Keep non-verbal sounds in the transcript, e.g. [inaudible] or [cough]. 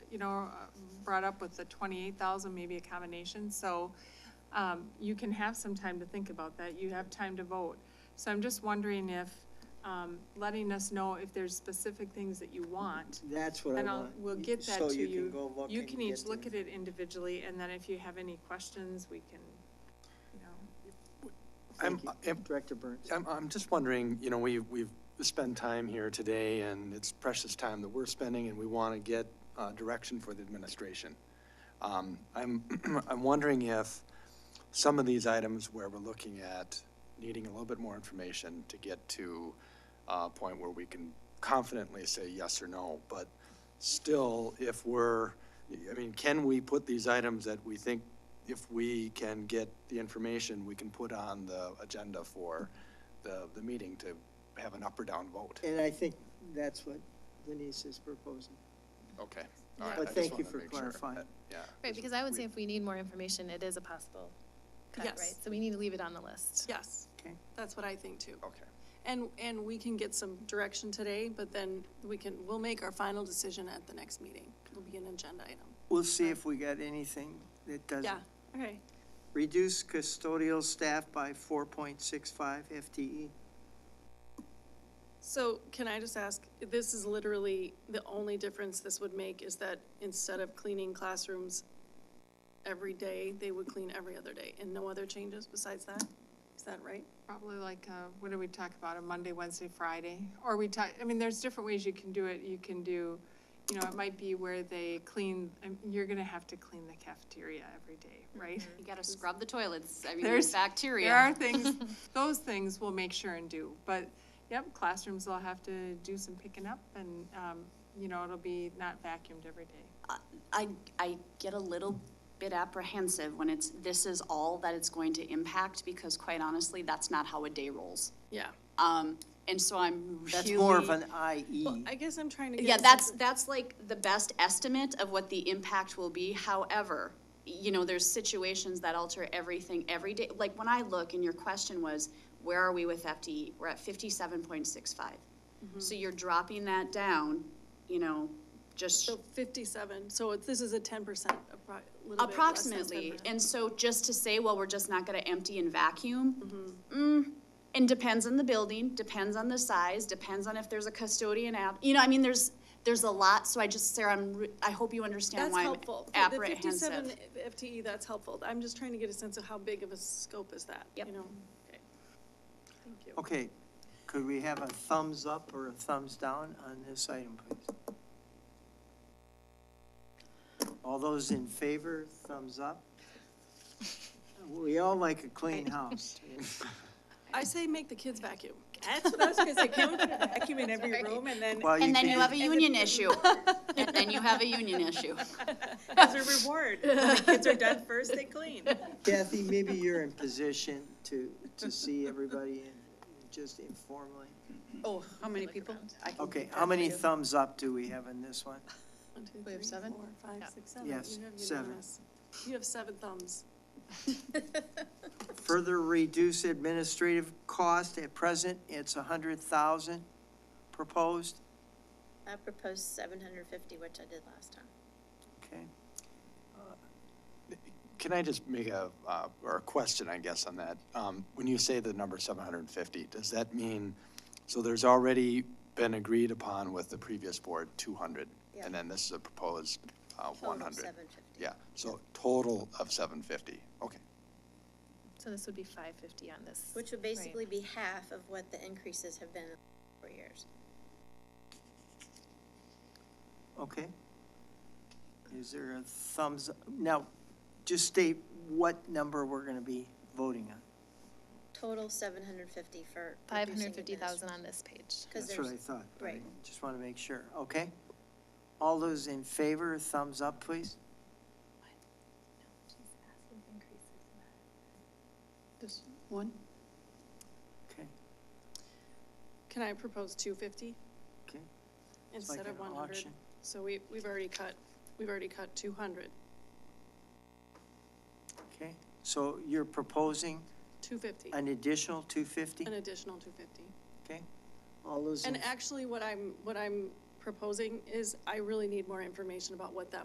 you know, uh, brought up with the twenty-eight thousand, maybe a combination, so, um, you can have some time to think about that, you have time to vote. So I'm just wondering if, um, letting us know if there's specific things that you want, That's what I And I'll, want. we'll get that to So you can you. go look You and can get each look the- at it individually, and then if you have any questions, we can, you know. I'm- Thank you, I'm- Director Burns. I'm, I'm just wondering, you know, we, we've spent time here today and it's precious time that we're spending and we want to get, uh, direction for the administration. Um, I'm, [clears throat] I'm wondering if some of these items where we're looking at needing a little bit more information to get to a point where we can confidently say yes or no, but still, if we're, I mean, can we put these items that we think, if we can get the information, we can put on the agenda for the, the meeting to have an up or down vote? And I think that's what Denise is proposing. Okay. all right, But I just thank you wanted to for make sure. clarifying. Yeah. Right, because I would say if we need more information, it is a possible cut, Yes. right? So we need to leave it on the list. Yes, Okay. that's what I think too. Okay. And, and we can get some direction today, but then we can, we'll make our final decision at the next meeting. It'll be an agenda item. We'll see if we got anything that doesn't. Yeah, okay. Reduce custodial staff by four point six five E. FTE. So can I just ask, this is literally, the only difference this would make is that instead of cleaning classrooms every day, they would clean every other day, and no other changes besides that? Is that right? Probably like, uh, what do we talk about, a Monday, Wednesday, Friday? Or we talk, I mean, there's different ways you can do it. You can do, you know, it might be where they clean, um, you're gonna have to clean the cafeteria every day, right? You gotta scrub the toilets, I mean, There's- there's bacteria. There are things, those things we'll make sure and do, but, yep, classrooms will have to do some picking up and, um, you know, it'll be not vacuumed every day. I, I get a little bit apprehensive when it's, this is all that it's going to impact, because quite honestly, that's not how a day rolls. Yeah. Um, and so I'm really. That's more of an E. IE. Well, I guess I'm trying to get. Yeah, a sense that's, of- that's like the best estimate of what the impact will be. However, you know, there's situations that alter everything every day. Like when I look and your question was, where are we with FTE? We're at fifty-seven point six five. Mm-hmm. So you're dropping that down, you know, just So fifty-seven, so it's, this is a ten percent, appro- little bit less than 10%. approximately. And so just to say, well, we're just not gonna empty and vacuum, Mm-hmm. mm, and depends on the building, depends on the size, depends on if there's a custodian app. You know, I mean, there's, there's a lot, so I just, Sarah, I'm, re- I hope you understand That's why I'm helpful. For The fifty-seven apprehensive. FTE, that's helpful. I'm just trying to get a sense of how big of a scope is that, you Yep. know? Okay. Thank you. Okay, could we have a thumbs up or a thumbs down on this item, please? All those in favor, thumbs up? We all like a clean house. I say make the kids vacuum. That's what I was gonna say, can we vacuum in every room and then? Well, And then can- you have a union issue, [laughs] and then you have a union issue. as a reward. When the kids are done first, they clean. Kathy, maybe you're in position to, to see everybody in, just informally. Oh, how many people? Okay, how many thumbs up do we have in this one? One, two, We have three, seven? four, five, six, seven. Yes, You have seven. unanimous. You have seven thumbs. Further reduce administrative cost, at present, it's a hundred thousand proposed, I proposed seven hundred fifty, which I did last time. okay? Can I just make a, uh, or a question, I guess, on that? Um, When you say the number 750, does that mean, so there's already been agreed upon with the previous board, 200? Yeah. And then this is a proposed uh, 100? Seven fifty. Yeah, so total of 750, okay. So this would be five fifty on this. Which would basically be half of what the increases have been in four years. Okay. Is there a thumbs, now, just state what number we're gonna be voting on. Total seven hundred fifty for. Five hundred fifty thousand on this page. Because That's what I there's, thought. but I right. Just wanna make sure, okay? All those in favor, thumbs up, please? Just one? Okay, Can I propose two fifty okay. It's like instead an of one hundred? auction. So we, we've already cut, we've already cut two hundred. Okay, so you're proposing Two fifty. an additional two fifty, an additional two fifty. okay? All those in And actually, what I'm, what I'm proposing is I really need more information about what that